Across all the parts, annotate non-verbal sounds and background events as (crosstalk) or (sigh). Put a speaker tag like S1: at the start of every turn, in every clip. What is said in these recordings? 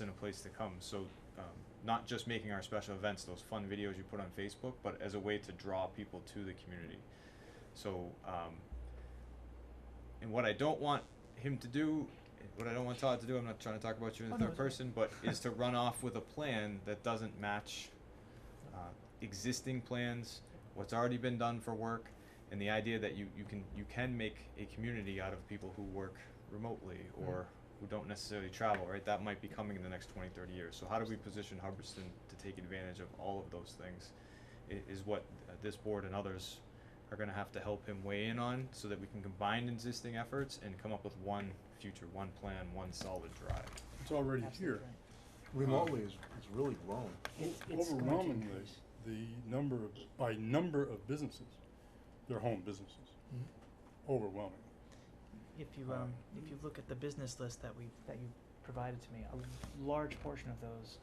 S1: and a place to come. So, um, not just making our special events, those fun videos you put on Facebook, but as a way to draw people to the community. So, um, and what I don't want him to do, what I don't want Todd to do, I'm not trying to talk about you in the
S2: Oh, no,
S1: third
S2: it's okay.
S1: person, but is to run off with a plan that doesn't match uh, existing plans, what's already been done for work, and the idea that you, you can you can make a community out of people who work remotely or who don't necessarily travel, right? That might be coming in the next 20, 30 years. So how do we position Hubbardston to take advantage of all of those things i- is what uh, this board and others are gonna have to help him weigh in on so that we can combine existing efforts and come up with one future, one plan, one solid drive.
S3: It's already here.
S2: Absolutely right.
S4: Remotely is, is really grown.
S2: It's,
S3: O-
S2: it's going to
S3: Overwhelmingly,
S2: increase.
S3: the number of, by number of businesses, they're home businesses.
S2: Mm-hmm.
S3: Overwhelming.
S2: If
S3: Uh,
S2: you, um, if you look at the business list that we, that you provided to me, a large portion of those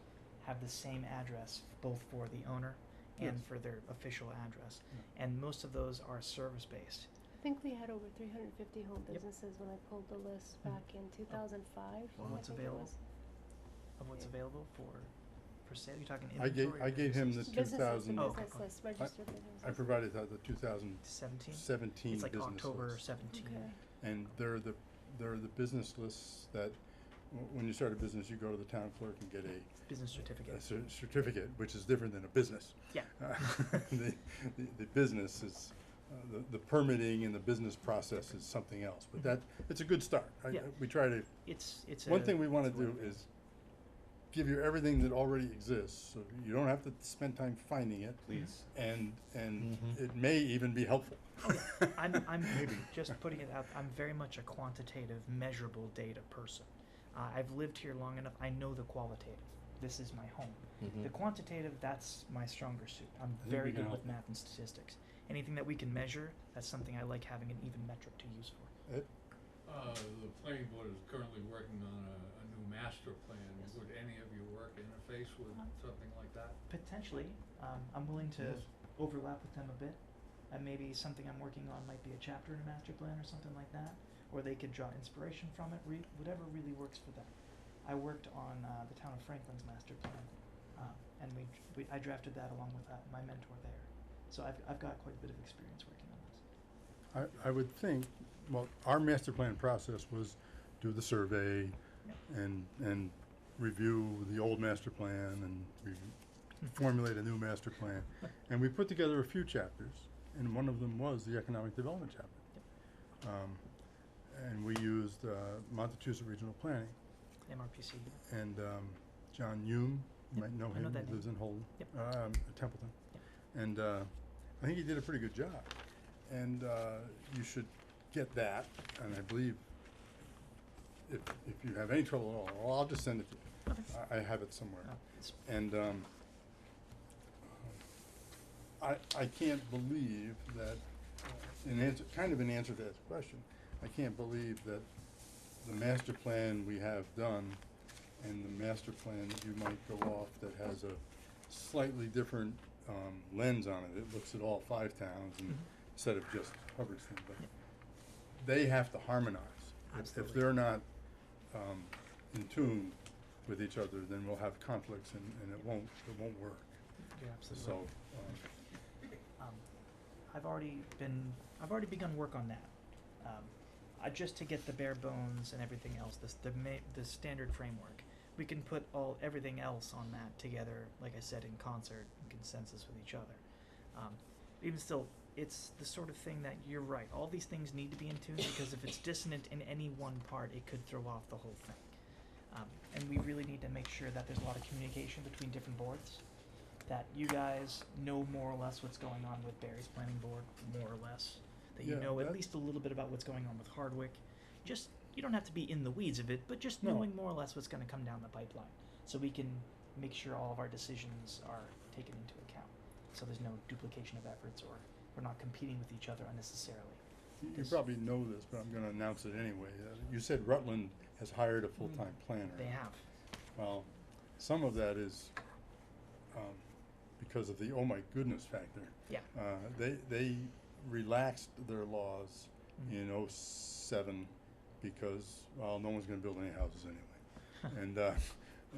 S2: have the same address both for the owner and
S3: Yes.
S2: for their official address. And most of those are service-based.
S5: I think we had over three hundred and fifty home
S2: Yep.
S5: businesses when I pulled the list back in two thousand five.
S2: Wow. What's available? of what's
S5: Yeah.
S2: available for, for sale, you're talking
S3: I
S2: inventory?
S3: gave, I
S2: or
S3: gave him the
S2: business
S3: two
S5: Businesses, the
S3: thousand,
S2: Oh, okay,
S5: business
S2: cool.
S5: list, registered businesses.
S3: I provided that, the two thousand
S2: Seventeen?
S3: seventeen
S2: It's
S3: business
S2: like October
S3: list.
S2: seventeen.
S5: Okay.
S3: And they're the, they're the business lists that, w- when you start a business, you go to the town clerk and get a,
S2: Business
S3: a
S2: certificate.
S3: cer- certificate, which is different than a
S2: (laughs)
S3: business.
S2: Yeah.
S3: Uh, The, the, the business is, uh, the, the permitting and the business process is something else, but that, it's a good start. I-
S2: Yeah.
S3: We try to,
S2: It's, it's a.
S3: one thing we wanna
S2: it's a
S3: do
S2: win.
S3: is give you everything that already exists, so you don't have to spend time finding it,
S1: Please.
S3: and, and
S4: Mhm.
S3: it may even be helpful. (laughs)
S2: I'm, I'm just putting it out. I'm very much a quantitative, measurable data person. Uh, I've lived here long enough. I know the qualitative. This is my home. The quantitative, that's my stronger suit. I'm
S3: I think
S2: very
S3: we can
S2: good with
S3: help.
S2: math and statistics. Anything that we can measure, that's something I like having an even metric to use for.
S3: Ed?
S6: Uh, the planning board is currently working on a, a new master plan. Would any of your work interface with
S2: Um,
S6: something like that?
S2: Potentially, um, I'm willing to
S3: Yes.
S2: overlap with them a bit. And maybe something I'm working on might be a chapter in a master plan or something like that. Or they could draw inspiration from it, re- whatever really works for them. I worked on uh, the town of Franklin's master plan, um, and we, we I drafted that along with uh, my mentor there. So I've, I've got quite a bit of experience working on this.
S3: I, I would think, well, our master plan process was do the survey and, and review the old master plan and re- formulate a new master plan. And we put together a few chapters, and one of them was the economic development chapter. Um, and we used, uh, Montechusett Regional Planning
S2: MRPC.
S3: and, um, John Hume,
S2: Yep,
S3: you might know
S2: I know
S3: him,
S2: that
S3: he lives in Holden,
S2: Yep.
S3: um, Templeton. And, uh, I think he did a pretty good job. And, uh, you should get that, and I believe if, if you have any trouble at all, well, I'll just send it to you.
S2: Okay.
S3: I, I have it somewhere.
S2: Uh, it's-
S3: And, um, I, I can't believe that, uh, in answer, kind of in answer to that question, I can't believe that the master plan we have done and the master plan that you might go off that has a slightly different, um, lens on it. It looks at all five towns and
S2: Mhm.
S3: instead of just Hubbardston, but they have to harmonize. If- If
S2: Absolutely.
S3: they're not, um, in tune with each other, then we'll have conflicts and, and it won't, it won't work.
S2: You're absolutely
S3: So,
S2: right.
S3: um,
S2: um, I've already been I've already begun work on that. Um, I, just to get the bare bones and everything else, this the ma- the standard framework. We can put all everything else on that together, like I said, in concert, in consensus with each other. Um, even still, it's the sort of thing that you're right. All these things need to be in tune because if it's dissonant in any one part, it could throw off the whole thing. Um, and we really need to make sure that there's a lot of communication between different boards that you guys know more or less what's going on with Barry's planning board, more or less. That you
S3: Yeah,
S2: know at
S3: that-
S2: least a little bit about what's going on with Hardwick. Just you don't have to be in the weeds of it, but just
S3: No.
S2: knowing more or less what's going to come down the pipeline, so we can make sure all of our decisions are taken into account. So there's no duplication of efforts, or we're not competing with each other unnecessarily.
S3: you- you
S2: This-
S3: probably know this, but I'm gonna announce it anyway. Uh, You said Rutland has hired a full-time planner.
S2: Mm-hmm. They have.
S3: Well, some of that is, um, because of the oh my goodness factor.
S2: Yeah.
S3: Uh, they, they relaxed their laws
S2: Mhm.
S3: in oh seven because, well, no one's gonna build any houses anyway. And, uh,